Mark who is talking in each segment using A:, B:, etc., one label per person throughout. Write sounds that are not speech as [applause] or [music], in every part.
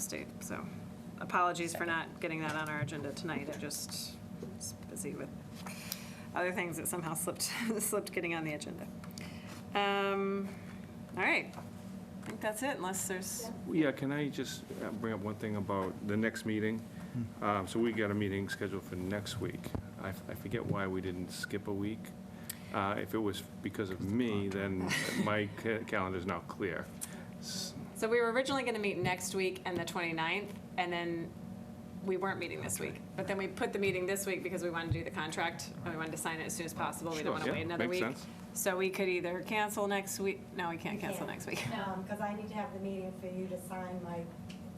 A: State, so apologies for not getting that on our agenda tonight. I just was busy with other things that somehow slipped, [laughs] slipped getting on the agenda. Um, All right, I think that's it, unless there's,
B: Yeah, can I just uh, bring up one thing about the next meeting?
C: Hmm.
B: Um, So we got a meeting scheduled for next week. I f- I forget why we didn't skip a week. Uh, If it was because of me, then [laughs] my ca- calendar's now clear. S-
A: so we were originally going to meet next week and the 29th, and then we weren't meeting this week. But then we put the meeting this week because we wanted to do the contract, and we wanted to sign it as soon as possible. We
B: Sure,
A: didn't want to
B: yeah,
A: wait another
B: makes
A: week.
B: sense.
A: So we could either cancel next week, no, we can't cancel
D: Yeah.
A: next week.
D: No,
A: [laughs]
D: because I need to have the meeting for you to sign my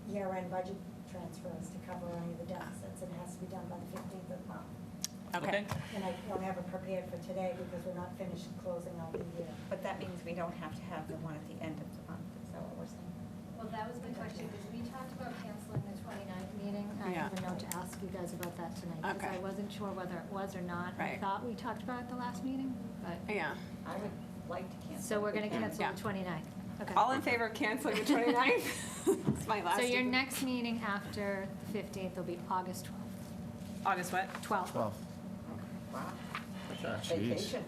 D: year-end budget transfers to cover any of the deficits. It has to be done by the fifteenth of the month.
A: Okay.
D: And I don't have it prepared for today because we're not finished closing out the year.
E: But that means we don't have to have the one at the end of the month, is that what we're saying?
F: Well, that was my question, because we talked about canceling the 29th meeting.
G: I
A: Yeah.
G: have a note to ask you guys about that tonight, because
A: Okay.
G: I wasn't sure whether it was or not. I
A: Right.
G: thought we talked about it the last meeting, but,
A: Yeah.
E: I would like to cancel.
G: so we're
E: if we
G: gonna
E: can.
G: cancel
A: Yeah.
G: the 29th. Okay.
A: All in favor of canceling the 29th? [laughs] It's my last.
G: So your
A: meeting.
G: next meeting after the 15th will be August
A: August what?
G: 12th. 12th.
E: Wow.
C: Jeez.
E: Vacation.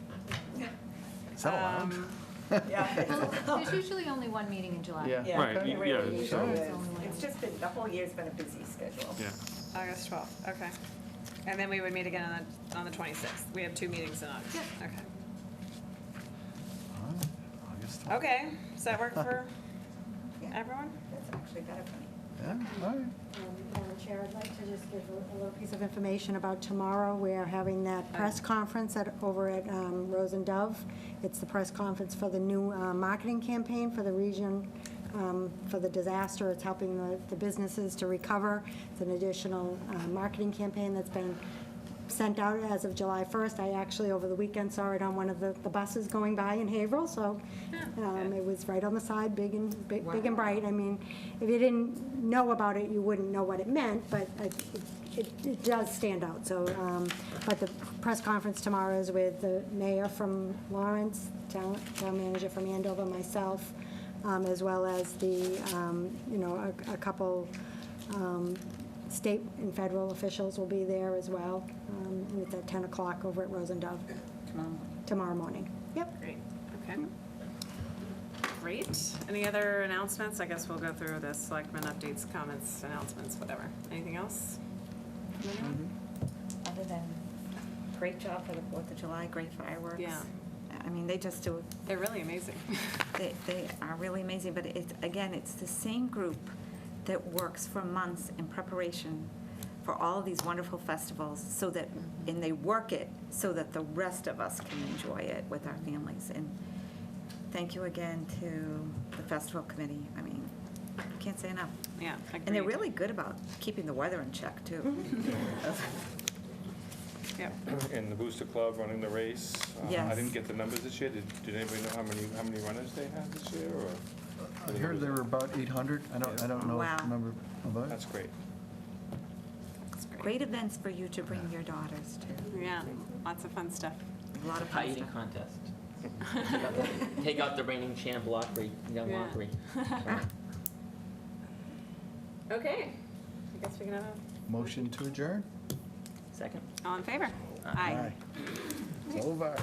E: [laughs]
C: Is that allowed?
A: Um,
C: [laughs]
G: There's usually only one meeting in July.
C: Yeah.
B: Right,
C: okay.
B: y- yeah,
E: It
C: so-
E: is. It's just been, the whole year's been a busy schedule.
B: Yeah,
A: August 12th, okay. And then we would meet again on the, on the 26th. We have two meetings in August.
G: Yep.
A: Okay.
C: All right, August 12th.
A: Okay, does that work
G: [laughs]
A: for
E: Yeah.
A: everyone?
E: That's actually better for me.
C: Yeah, all right.
D: And, Um, Madam Chair, I'd like to just give a a little piece of information about tomorrow. We are having that press conference at, over at um, Rose and Dove. It's the press conference for the new uh, marketing campaign for the region, um, for the disaster. It's helping the- the businesses to recover. It's an additional uh, marketing campaign that's been sent out as of July 1st. I actually, over the weekend, saw it on one of the the buses going by in Haverhill, so um, it was right on the side, big and, big big and bright. I mean, if you didn't know about it, you wouldn't know what it meant, but I- it- it it does stand out, so. um, But the press conference tomorrow is with the mayor from Lawrence, town town manager from Andover, myself, um, as well as the, um, you know, a a couple um, state and federal officials will be there as well. Um, and It's at 10 o'clock over at Rose and Dove
E: Tomorrow.
D: tomorrow morning. Yep.
A: Great, okay.
C: Hmm.
A: Great. Any other announcements? I guess we'll go through the selectmen updates, comments, announcements, whatever. Anything else?
C: Mm-hmm.
E: Other than, great job for the Fourth of July, great fireworks.
A: Yeah.
E: I mean, they just do,
A: They're really amazing. [laughs]
E: they, they are really amazing, but it, again, it's the same group that works for months in preparation for all these wonderful festivals, so that, and they work it so that the rest of us can enjoy it with our families. And thank you again to the festival committee. I mean, can't say enough.
A: Yeah, agreed. Mm-hmm.
E: And they're really good about keeping the weather in check, too.
A: [laughs] Yep.
B: and the Booster Club running the race. Uh, I
E: Yes.
B: didn't get the numbers this year. Did Did anybody know how many, how many runners they had this year, or?
C: I heard there were about 800. I don't, I don't know
E: Wow.
C: the number about it.
B: That's great.
A: That's great.
E: Great events for you to bring your daughters to.
A: Yeah, lots of fun stuff.
E: A lot of
H: Pie
E: fun
H: eating
E: stuff.
H: contest.
E: [laughs]
H: Take out the- Take out the reigning champ Lockery, young
A: Yeah.
H: Lockery.
A: Okay, I guess we can have, a-
C: Motion to adjourn?
H: Second?
A: all in favor?
C: Aye. It's over.